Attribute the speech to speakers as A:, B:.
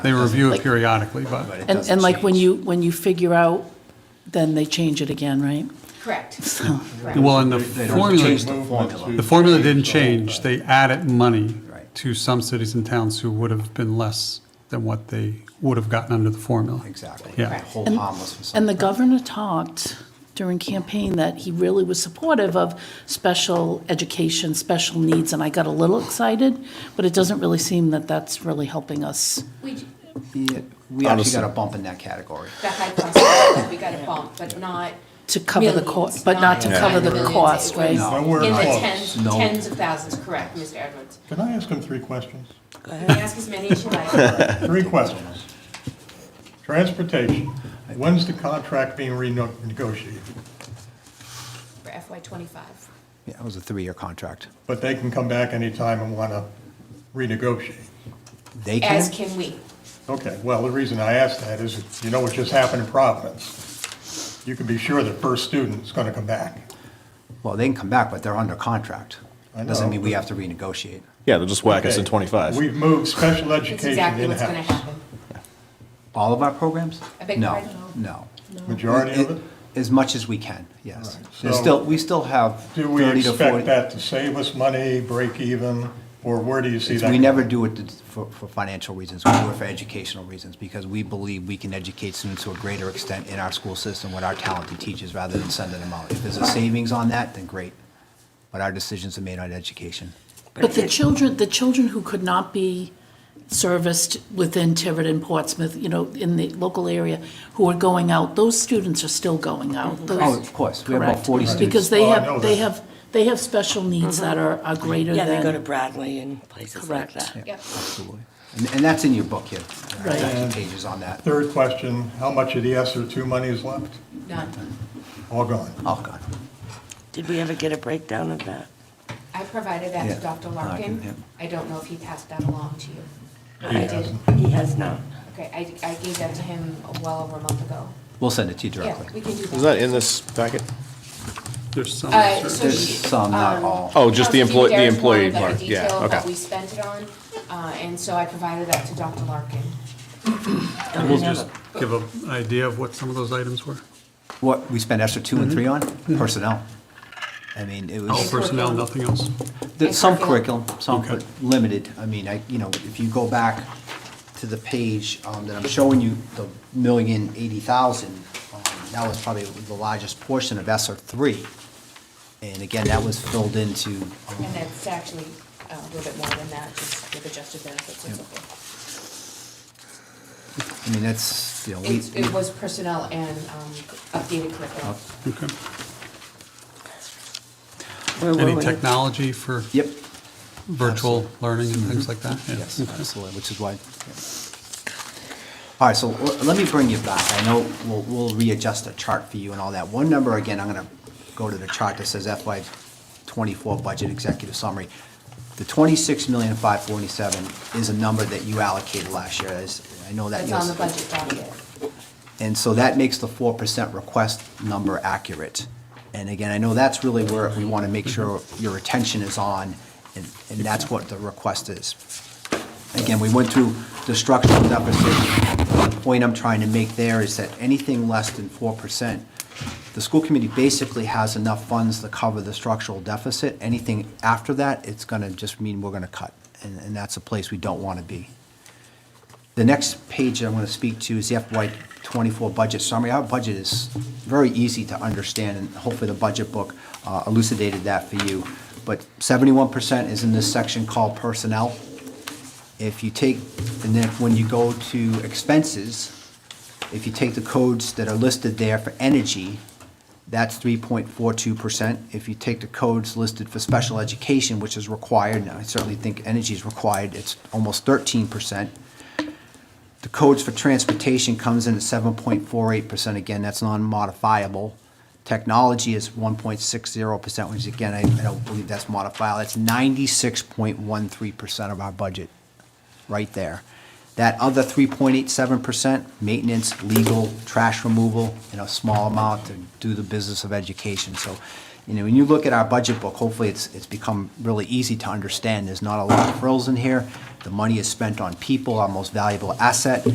A: They review it
B: Like-
A: periodically, but.
C: But it
B: And,
C: doesn't
B: and like when
C: change.
B: you, when you figure out, then they change it again, right?
D: Correct.
B: So,
D: correct.
A: Well, and the
C: They
A: formula,
C: change the formula.
A: the formula didn't change. They added money
C: Right.
A: to some cities and towns who would have been less than what they would have gotten under the formula.
C: Exactly.
A: Yeah.
C: The Whole
B: And-
C: harmless for
B: and the
C: something.
B: governor talked during campaign that he really was supportive of special education, special needs, and I got a little excited, but it doesn't really seem that that's really helping us.
D: We, j-
C: Yeah, We actually got a bump in that category.
D: the high cost, of living, we got a bump, but not.
B: To cover the
D: millions,
B: cost, but not to
D: in
B: cover the
D: millions. It
B: cost,
D: was
B: right?
C: No.
E: we're
D: In the
E: close.
D: tens,
C: No.
D: tens of thousands, correct, Mr. Edwards.
E: Can I ask him three questions?
D: You can ask as many as you like.
E: Three questions. Transportation, when's the contract being renegotiated?
D: For FY twenty-five.
C: Yeah, it was a three-year contract.
E: But they can come back anytime and want to renegotiate.
C: They
D: As
C: can,
D: can we.
E: Okay, well, the reason I ask that is, you know what just happened in Providence? You can be sure the first student is going to come back.
C: well, they can come back, but they're under contract.
E: I
C: Doesn't
E: know,
C: mean we have to renegotiate.
F: Yeah, they'll just whack us in
E: Okay,
F: 25.
E: We've moved special
D: That's
E: education
D: exactly what's gonna
E: in-house.
D: happen.
C: All of our programs?
D: I beg your
C: No,
D: pardon?
C: no.
E: Majority of it?
C: As much as we can, yes.
E: All right,
C: There's
E: so-
C: still, we still have
E: Do we
C: 30 to 40.
E: expect that to save us money, break even, or where do you see that?
C: We
E: going?
C: never do it to- for, for financial reasons, we do it for educational reasons, because we believe we can educate students to a greater extent in our school system with our talented teachers rather than sending them out. If there's a savings on that, then great, but our decisions are made on education.
B: But the children, the children who could not be serviced within Tiverton, Portsmouth, you know, in the local area, who are going out, those students are still going out. Those-
C: Oh, of course, we have about
B: Correct.
C: 40
B: Because
C: students.
B: they
E: Oh, I know
B: have, they
E: that.
B: have, they have special needs that are, are greater
G: Yeah,
B: than.
G: they go to Bradley and places like
B: Correct.
G: that.
D: Yep.
C: Absolutely. And, and that's in your book here,
B: Right.
C: there's actually pages on that.
E: Third question, how much of the ESER two money is left?
D: None.
E: All gone.
C: Oh, God.
G: Did we ever get a breakdown of that?
D: I provided that
C: Yeah.
D: to Dr.
C: Larkin, yeah.
D: Larkin. I don't know if he passed that along to you. I did.
E: hasn't.
G: He has not.
D: Okay, I, I gave that to him well over a month ago.
C: We'll send it to you
D: Yeah,
C: directly.
D: we can do that.
F: Is that in this packet?
A: There's some.
D: Uh,
A: certain-
D: so
C: There's
D: she-
C: some, not
D: um,
C: all.
F: Oh, just the
D: Constantine
F: employee, the
D: Garrett's one
F: employee
D: that
F: part,
D: we
F: yeah,
D: detailed that we
F: okay.
D: spent it on, uh, and so I provided that to Dr. Larkin.
G: Don't
A: We'll
G: we have
A: just
G: a-
A: give an idea of what some of those items were.
C: What, we spent extra two and three
D: Mm-hmm.
C: on? Personnel. I mean, it was.
A: All
D: Oh,
A: personnel, nothing else.
C: There's some
D: curriculum.
C: curriculum, some,
A: Okay.
C: but limited. I mean, I, you know, if you go back to the page um, that I'm showing you, the million eighty thousand, um, that was probably the largest portion of ESER three. And again, that was filled into, um,
D: And that's actually uh, a little bit more than that, just with adjusted benefits and so forth.
C: I mean, that's, you know, we,
D: It's- It was personnel and um, updated curriculum.
A: Okay.
G: where were
A: Any
G: we?
A: technology for
C: yep,
A: virtual learning and things like that? Yeah.
C: yes,
A: Okay.
C: absolutely, which is why. yeah. All right, so l- let me bring you back. I know we'll, we'll readjust the chart for you and all that. One number, again, I'm gonna go to the chart that says FY twenty-four budget executive summary. The twenty-six million five forty-seven is a number that you allocated last year. As- I know that.
D: That's
C: you'll
D: on the
C: s-
D: budget document.
C: And so that makes the four percent request number accurate. And again, I know that's really where we want to make sure your attention is on, and, and that's what the request is. Again, we went through the structural deficit. The point I'm trying to make there is that anything less than four percent, the school committee basically has enough funds to cover the structural deficit. Anything after that, it's gonna just mean we're gonna cut, and, and that's a place we don't want to be. The next page that I'm going to speak to is the FY '24 budget summary. Our budget is very easy to understand, and hopefully the budget book uh, elucidated that for you. But 71% is in this section called personnel. If you take, and then when you go to expenses, if you take the codes that are listed there for energy, that's 3.42%. If you take the codes listed for special education, which is required, and I certainly think energy is required, it's almost 13%. The codes for transportation comes in at seven point four eight percent, again, that's non-modifiable. Technology is one point six zero percent, which again, I, I don't believe that's modifiable, that's ninety-six point one three percent of our budget, right there. That other three point eight seven percent, maintenance, legal, trash removal, and a small amount to do the business of education, so You know, when you look at our budget book, hopefully it's, it's become really easy to understand. There's not a lot of frills in here. The money is spent on people, our most valuable asset.